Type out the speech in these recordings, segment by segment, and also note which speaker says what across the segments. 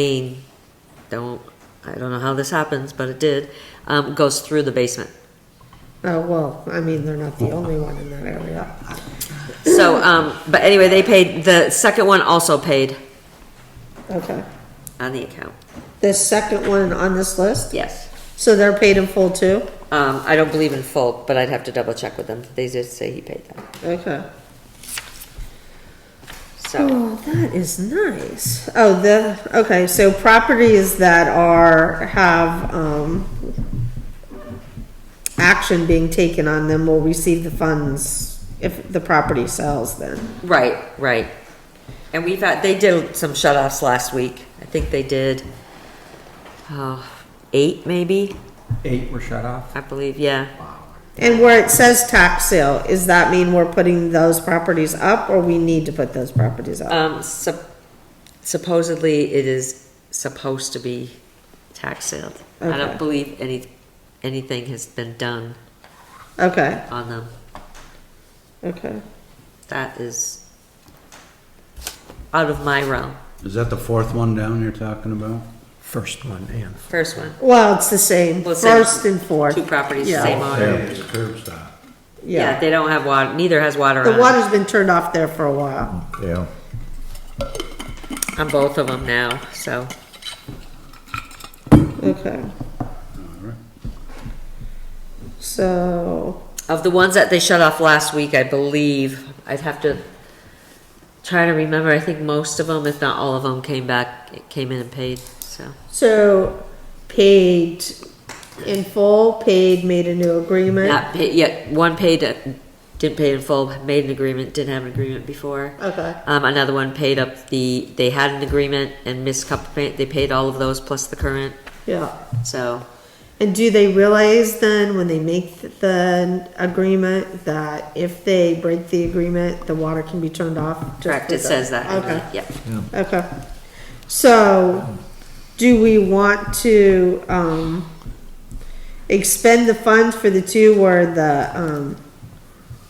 Speaker 1: main, don't, I don't know how this happens, but it did, um, goes through the basement.
Speaker 2: Oh, well, I mean, they're not the only one in that area.
Speaker 1: So, um, but anyway, they paid, the second one also paid
Speaker 2: Okay.
Speaker 1: on the account,
Speaker 2: The second one on this list,
Speaker 1: yes.
Speaker 2: so they're paid in full too?
Speaker 1: Um, I don't believe in full, but I'd have to double check with them, they did say he paid them,
Speaker 2: Okay.
Speaker 1: so.
Speaker 2: Oh, that is nice. Oh, the, okay, so properties that are, have, um, action being taken on them will receive the funds if the property sells then.
Speaker 1: Right, right. And we've had, they did some shut-offs last week, I think they did, oh, eight maybe,
Speaker 3: Eight were shut off.
Speaker 1: I believe, yeah.
Speaker 2: And where it says tax sale, is that mean we're putting those properties up or we need to put those properties up?
Speaker 1: Um, sup- supposedly it is supposed to be tax sale. I
Speaker 2: Okay.
Speaker 1: don't believe any, anything has been done
Speaker 2: Okay,
Speaker 1: on them.
Speaker 2: okay.
Speaker 1: That is out of my realm.
Speaker 4: Is that the fourth one down you're talking about?
Speaker 3: First one and.
Speaker 1: First one,
Speaker 2: Well, it's the same,
Speaker 1: Well, same.
Speaker 2: first and fourth.
Speaker 1: two properties,
Speaker 2: Yeah.
Speaker 1: same owner.
Speaker 4: it's a curb stop.
Speaker 1: Yeah, they don't have water, neither has water
Speaker 2: The
Speaker 1: on, it.
Speaker 2: water's been turned off there for a while.
Speaker 4: Yeah.
Speaker 1: on both of them now, so. Mm-hmm.
Speaker 2: Okay. So,
Speaker 1: Of the ones that they shut off last week, I believe, I'd have to try to remember, I think most of them, if not all of them, came back, came in and paid, so.
Speaker 2: so paid in full, paid, made a new agreement.
Speaker 1: Not paid, yet, one paid, uh, didn't pay in full, made an agreement, didn't have an agreement before.
Speaker 2: Okay,
Speaker 1: Um, another one paid up the, they had an agreement and missed couple, pay- they paid all of those plus the current,
Speaker 2: yeah.
Speaker 1: so.
Speaker 2: And do they realize then when they make the agreement that if they break the agreement, the water can be turned off? just
Speaker 1: Correct,
Speaker 2: for
Speaker 1: it
Speaker 2: the-
Speaker 1: says that, in the-
Speaker 2: Okay.
Speaker 1: yeah.
Speaker 2: Okay. So, do we want to, um, expend the funds for the two where the, um,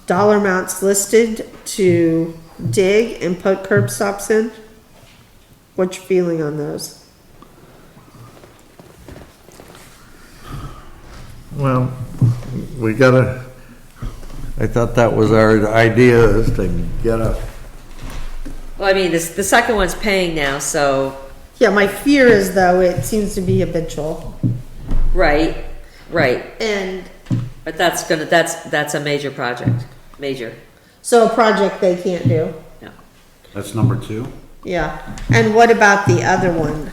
Speaker 2: dollar amounts listed to dig and put curb stops in? What's your feeling on those?
Speaker 5: Well, we gotta, I thought that was our idea, is to get a,
Speaker 1: Well, I mean, this, the second one's paying now, so,
Speaker 2: Yeah, my fear is though, it seems to be habitual.
Speaker 1: right, right,
Speaker 2: And
Speaker 1: but that's gonna, that's, that's a major project, major,
Speaker 2: so a project they can't do,
Speaker 1: no.
Speaker 4: That's number two?
Speaker 2: yeah. And what about the other one?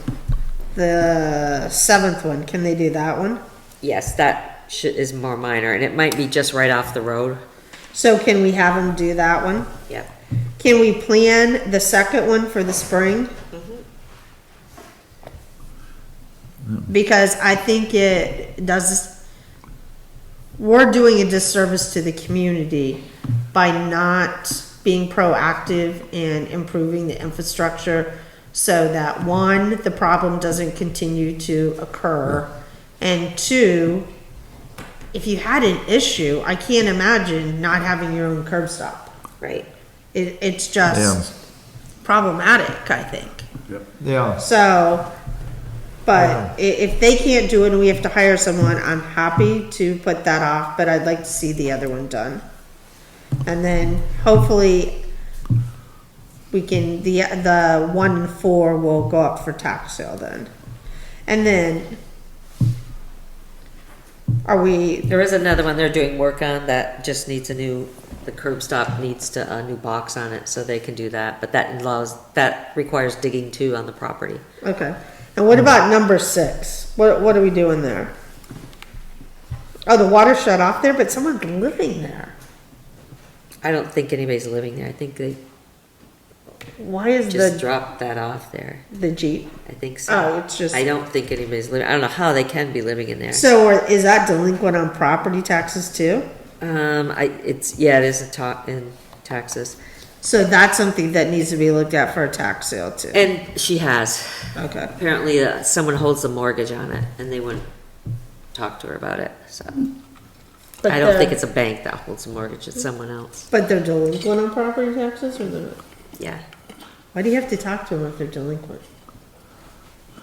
Speaker 2: The seventh one, can they do that one?
Speaker 1: Yes, that shit is more minor, and it might be just right off the road,
Speaker 2: So can we have them do that one?
Speaker 1: yeah.
Speaker 2: Can we plan the second one for the spring? Because I think it does, we're doing a disservice to the community by not being proactive and improving the infrastructure so that, one, the problem doesn't continue to occur, and two, if you had an issue, I can't imagine not having your own curb stop.
Speaker 1: Right.
Speaker 2: It, it's just problematic, I think.
Speaker 5: yeah,
Speaker 2: So, but i- if they can't do it and we have to hire someone, I'm happy to put that off, but I'd like to see the other one done. And then hopefully we can, the, the one and four will go up for tax sale then. And then, are we,
Speaker 1: There is another one they're doing work on that just needs a new, the curb stop needs to, a new box on it, so they can do that, but that allows, that requires digging too on the property.
Speaker 2: okay. And what about number six? What, what are we doing there? Oh, the water shut off there, but someone's living there.
Speaker 1: I don't think anybody's living there, I think they
Speaker 2: Why is
Speaker 1: just
Speaker 2: the,
Speaker 1: dropped that off there,
Speaker 2: the Jeep?
Speaker 1: I think so.
Speaker 2: Oh, it's just,
Speaker 1: I don't think anybody's living, I don't know how they can be living in there.
Speaker 2: so are- is that delinquent on property taxes too?
Speaker 1: Um, I, it's, yeah, it is a ta, in taxes,
Speaker 2: So that's something that needs to be looked at for a tax sale too.
Speaker 1: and she has,
Speaker 2: Okay,
Speaker 1: apparently uh, someone holds the mortgage on it, and they wouldn't talk to her about it, so.
Speaker 2: But
Speaker 1: I don't think
Speaker 2: the-
Speaker 1: it's a bank that holds the mortgage, it's someone else.
Speaker 2: but they're delinquent on property taxes or they're not?
Speaker 1: Yeah,
Speaker 2: Why do you have to talk to them if they're delinquent?